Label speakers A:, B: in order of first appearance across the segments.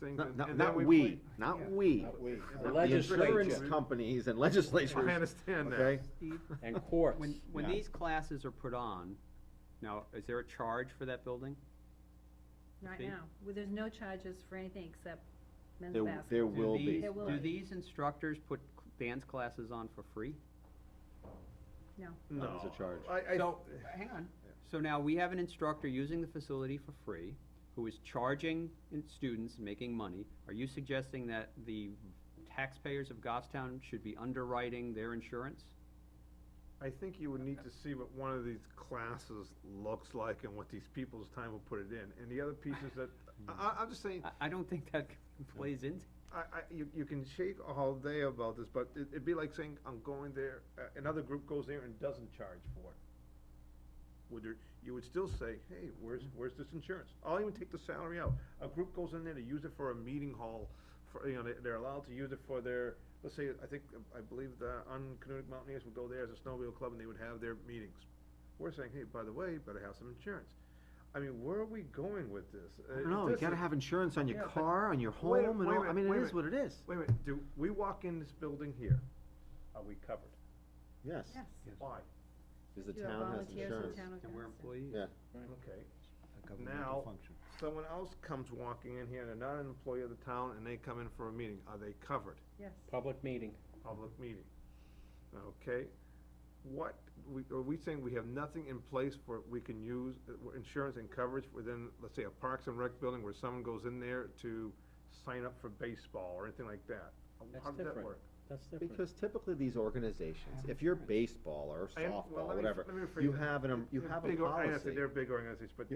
A: things.
B: Not,
A: and-
B: not,
A: and then
B: not
A: play-
B: we, not
A: Yeah.
B: we.
C: Not we.
B: Not
C: The
B: The
C: legislature.
B: insurance companies and legislatures.
A: I understand that.
B: Okay?
D: Steve,
C: And courts.
D: when, when
C: yeah.
D: these classes are put on, now, is there a charge for that building?
E: Right
D: Fee?
E: now, well, there's no charges for anything except men's
B: There,
E: basketball.
B: there
D: Do
B: will
D: these-
B: be.
E: There will
D: Do
E: be.
D: these instructors put c- dance classes on for free?
E: No,
A: No.
B: There's a charge.
A: I, I.
D: So, hang on. So now we have an instructor using the facility for free, who is charging in- students, making money. Are you suggesting that the taxpayers of Goffstown should be underwriting their insurance?
A: I think you would need to see what one of these classes looks like and what these people's time will put it in, and the other pieces that, I, I, I'm just saying,
D: I, I don't think that plays into.
A: I, I, you, you can shake all day about this, but it, it'd be like saying, I'm going there, uh, another group goes there and doesn't charge for it. Would there, you would still say, hey, where's, where's this insurance? I'll even take the salary out. A group goes in there to use it for a meeting hall, for, you know, they- they're allowed to use it for their, let's say, I think, I believe the Unconnected Mountaineers would go there as a snowmobile club and they would have their meetings. We're saying, hey, by the way, you better have some insurance. I mean, where are we going with this? Uh,
B: No, you
A: this
B: gotta
A: is-
B: have insurance on your
A: Yeah, but-
B: car, on your
A: Wait a-
B: home, and
A: wait a
B: all, I
A: minute,
B: mean,
A: wait
B: it
A: a
B: is what it is.
A: Wait a minute, do, we walk in this building here, are we covered?
B: Yes.
E: yes.
A: Why?
B: Cause the
E: You have
B: town has
E: volunteers in
B: insurance.
E: town of
D: And we're
E: Madison.
D: employees?
B: Yeah.
A: Okay, now, someone else comes walking in here, they're not an employee of the town, and they come in for a meeting, are they covered?
E: Yes.
C: Public meeting.
A: Public meeting, okay? What, we, are we saying we have nothing in place for, we can use, uh, where insurance and coverage within, let's say, a Parks and Rec building where someone goes in there to sign up for baseball or anything like that? How
C: That's
A: does that
C: different.
A: work?
C: That's different.
B: Because typically these organizations, if you're baseball or
A: I am- well, let
B: softball,
A: me-
B: whatever,
A: let me rephrase
B: you
A: it.
B: have an, um, you
A: They're
B: have a
A: big or- I understand
B: policy.
A: They're big organizations, but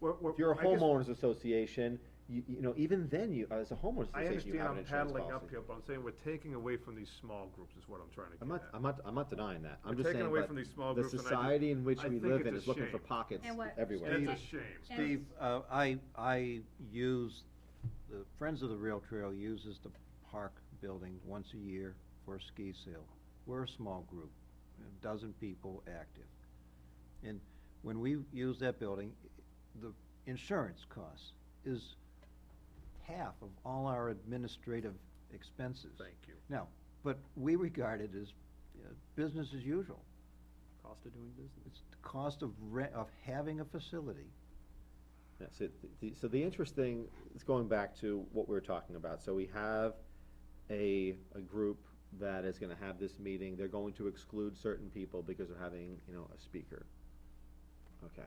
A: we're, we're.
B: If you're a
A: I just-
B: homeowners association, you, you know, even then you, as a homeowners
A: I
B: association,
A: understand
B: you have an
A: I'm
B: insurance policy.
A: paddling uphill, but I'm saying we're taking away from these small groups is what I'm trying to
B: I'm
A: get
B: not,
A: at.
B: I'm not, I'm not denying that, I'm
A: We're
B: just
A: taking
B: saying,
A: away
B: but
A: from these small
B: the
A: groups, and I just-
B: society in which
A: I
B: we
A: think
B: live
A: it's
B: in
A: a
B: is looking for
A: shame.
B: pockets
E: And what-
B: everywhere.
A: And it's a
E: Steve-
A: shame.
E: And-
F: Steve, uh, I, I use, the Friends of the Rail Trail uses the park building once a year for a ski sale. We're a small group, a dozen people active. And when we use that building, the insurance cost is half of all our administrative expenses.
A: Thank you.
F: Now, but we regard it as uh, business as usual.
D: Cost of doing business.
F: It's the cost of rent, of having a facility.
B: Yeah, so, th- the, so the interesting, it's going back to what we were talking about, so we have a, a group that is gonna have this meeting, they're going to exclude certain people because of having, you know, a speaker. Okay,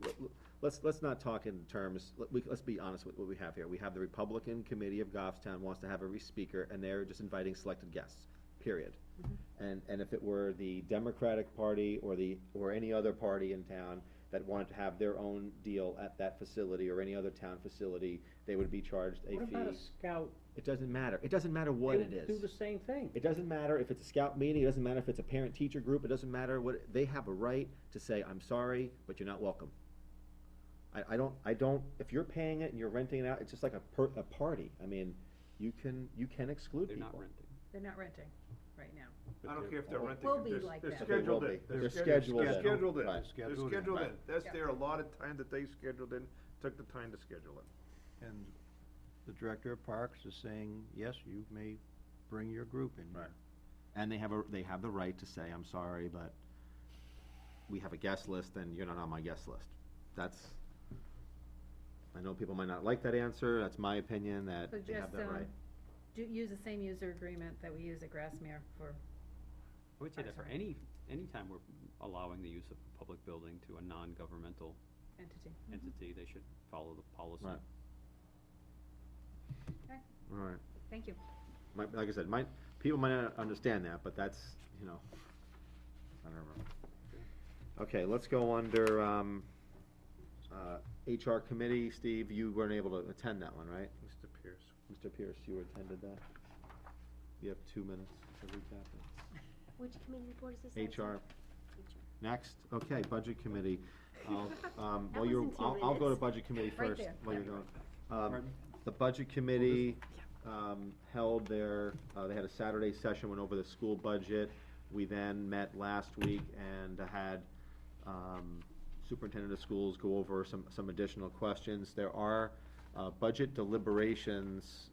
B: Let- let- let's, let's not talk in terms, let, we, let's be honest with what we have here, we have the Republican Committee of Goffstown wants to have every speaker, and they're just inviting selected guests, period.
C: Mm-hmm.
B: And, and if it were the Democratic Party or the, or any other party in town that wanted to have their own deal at that facility or any other town facility, they would be charged a
C: What about a
B: fee.
C: scout?
B: It doesn't matter, it doesn't matter what
C: They
B: it
C: would
B: is.
C: Do the same thing.
B: It doesn't matter if it's a scout meeting, it doesn't matter if it's a parent-teacher group, it doesn't matter what, they have a right to say, I'm sorry, but you're not welcome. I, I don't, I don't, if you're paying it and you're renting it out, it's just like a per, a party, I mean, you can, you can exclude
D: They're
B: people.
D: not renting.
E: They're not renting right now.
A: I don't care if they're
B: Will
A: renting, it,
E: be
A: they're,
E: like
A: they're
E: that.
B: They will
A: scheduled
B: be.
A: in.
B: They're scheduled
A: They're
B: in.
A: scheduled in,
B: Right.
A: they're
F: Scheduled in.
A: scheduled in, that's
E: Yeah.
A: their allotted time that they scheduled in, took the time to schedule it.
F: And the director of parks is saying, yes, you may bring your group in. here."
B: Right. And they have a, they have the right to say, I'm sorry, but we have a guest list and you're not on my guest list. That's, I know people might not like that answer, that's my opinion, that
E: So
B: they have
E: just,
B: that
E: um,
B: right.
E: do, use the same user agreement that we use at Grassmere for,
D: I would say that for any, any time we're allowing the use of a public building to a non-governmental
E: entity.
D: entity, they should follow the policy.
B: Right.
E: Okay,
B: All right.
E: thank you.
B: My, like I said, might, people might not understand that, but that's, you know, I don't remember. Okay, let's go under, um, uh, HR committee. Steve, you weren't able to attend that one, right?
A: Mr. Pierce.
B: Mr. Pierce, you attended that? You have two minutes to recap
G: Which community board is this?
B: it. HR, next, okay, budget committee. I'll, um,
G: That
B: while you're,
G: wasn't two
B: I'll, I'll go to
G: minutes.
B: budget committee
E: Right
B: first,
E: there.
B: while you're
E: Yeah.
B: going. Um, the budget committee, um, held their, uh, they had a Saturday session, went over the school budget. We then met last week and had, um, superintendent of schools go over some, some additional questions. There are uh, budget deliberations